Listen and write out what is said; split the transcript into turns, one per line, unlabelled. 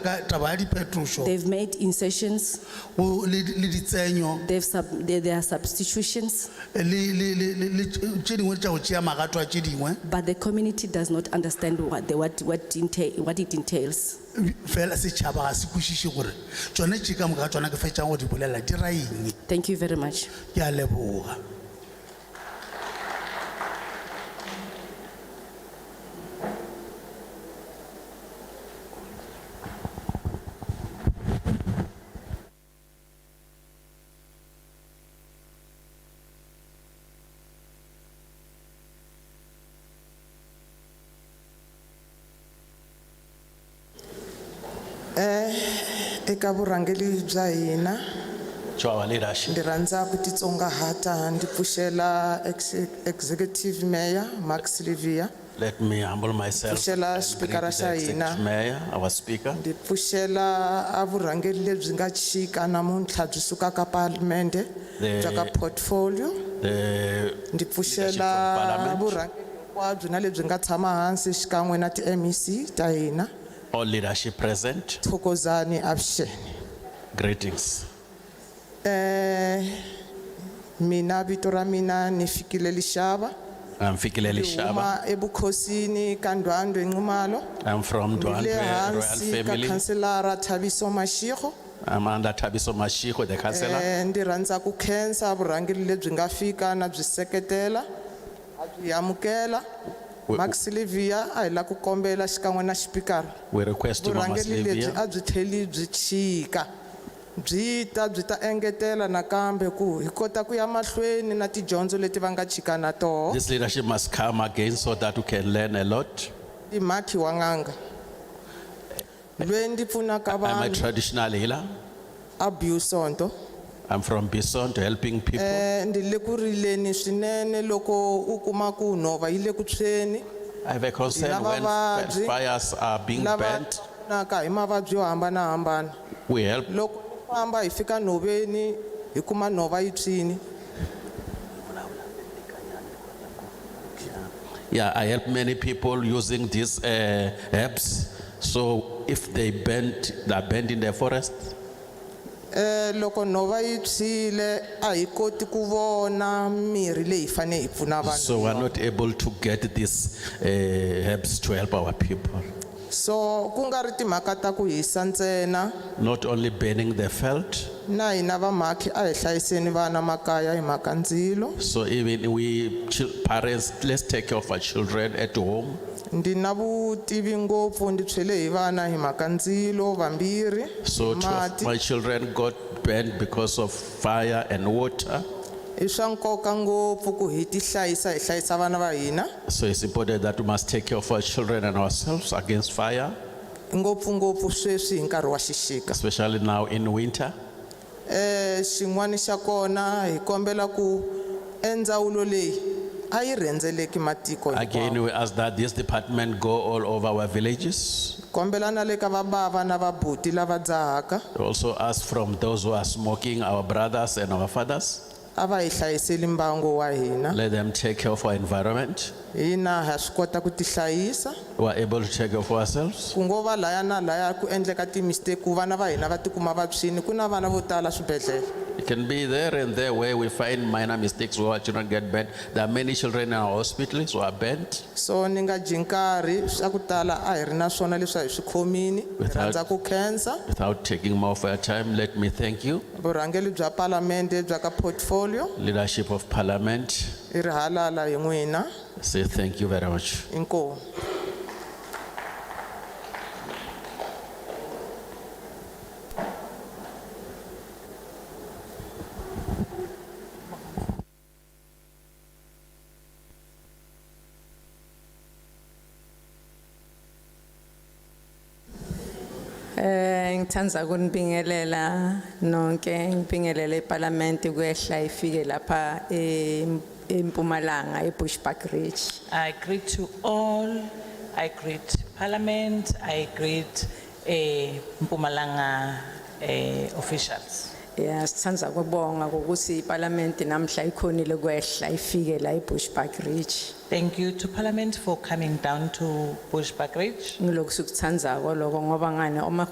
ka taba ya diphetošo
They've made insertions,
o- le le ditsenyo
they've sub, there, there are substitutions,
le- le le- le- le- tše dingwe tša go tšea magato a tše dingwe
but the community does not understand what, the, what, what, entail, what it entails.
fela setšhaba ga se kwešiše gore tšone tše ka moka tsona ke fetšang go di bolela di ra eng
Thank you very much.
ke a leboga
eka vurhangeli bya hina
to our leadership.
ndzi rhandza ku titsongahata ndzi pfuxela ex- executive mayor max livia
Let me humble myself.
Pfuxela
and
Speaker
greet
ra
the
xa hina.
Executive Mayor, our speaker.
ndzi pfuxela a vurhangeri lebyi nga chika namuntlha byi sukaka palamende
The-
bya ka portfolio
The
ndzi pfuxela
Leadership from Parliament.
vurhangeri hinkwabyo na lebyi nga tshama hansi xikan'we na ti-mec ta hina
all leadership present.
thokozani avuxeni
Greetings.
um mina vito ra mina ni fikile lixava
I'm Fikile Lishaba.
huma ebukhosini ka ndwandwe nxumalo
I'm from
le
Duandwe
hansi
Royal
ka
Family.
khanselara thabiso mashikho
I'm under Tabiso Mashiko, the councillor.
Eh, ndzi rhandza ku khensa vurhangeri lebyi nga fika na byi seketela a byi amukela
We-
max livia a hi la ku kombela xikan'we na xipikara
We request to Mama
vurhangeri lebyi
Sylvia
a byi tlheli byi chika byi ta byi ta engetela nakambe ku hi kota ku ya mahlweni na tidyondzo leti va nga chika na toho
This leadership must come again so that we can learn a lot.
i mhakhi wa n'anga lweyi ndzi pfunaka
I'm a
vanhu
traditional healer.
abusonto
I'm from Bison to helping people.
um ndzi le ku rileni swinene loko u kuma ku nhova yi le ku tshweni
I have a concern
lava
when
vabyi,
fires are being
lava
burnt.
naka hi mavabyi yo hambanahambana
We help
loko u famba hi fika nhoveni hi kuma nhova yi tshwini
Yeah, I help many people using these uh, herbs. So if they bend, they're bent in the forest.
um loko nhova yi tshwile a hi koti ku vona mirhi leyi hi fanele hi pfuna vanhu
So we're not able to get these uh, herbs to help our people.
so ku nga ri timhaka ta ku hisa ntsena
Not only burning the felt,
na hina vamhakhi a hi hlayiseni vana makaya hi mhaka ndzilo
so even we chil- parents, let's take care of our children at home.
ndzi na vutivi ngopfu ndzi tshwele hi vana hi mhaka ndzilo vambirhi
So two of
mati
my children got burned because of fire and water.
i swa nkoka ngopfu ku hi ti hlayisa hi hlayisa vana va hina
So it's important that we must take care of our children and ourselves against fire,
ngopfungopfu sweswi hi nkarhi wa xixika
especially now in winter.
um xin'wana xa kona hi kombela ku endzawulo leyi a yi rhendzeleki matiko hinkwawo.
Again, we ask that this department go all over our villages.
kombela na le ka vabava na vabuti lava dzahaka
We Also ask from those who are smoking, our brothers and our fathers,
a va hi hlayiseli mbangu wa hina
let them take care of our environment.
hina ha swi kota ku tihlayisa
We are able to take care of ourselves.
ku ngo va laya na laya ku endleka timistake ku vana va hina va tikuma va tshwini ku na vana vo tala swibedhlele
It can be there and there where we find minor mistakes where our children get bent. There are many children in our hospitals who are bent.
so ni nga dyi nkarhi swa ku tala a hi ri na swona leswi a hi swi khomini hi
Without-
rhandza ku khensa
Without taking more of your time, let me thank you,
vurhangeli bya palamende bya ka portfolio
leadership of parliament.
i ri halala hi n'wina
Say thank you very much.
inkomu
Eh ngithanda ukunibingelela nonke ngibingelele iParliament kuyehla ifike lapha em- eMpumalanga eBushbuck Ridge.
I greet to all, I greet Parliament, I greet eh, Mpumalanga eh, officials.
Yeah sithanda ukubonga ukuthi iParliament namhla ikhonile kuyehla ifike la eBushbuck Ridge.
Thank you to Parliament for coming down to Bushbuck Ridge.
Ngilokhu sikuthanda lokho ngoba ngane uma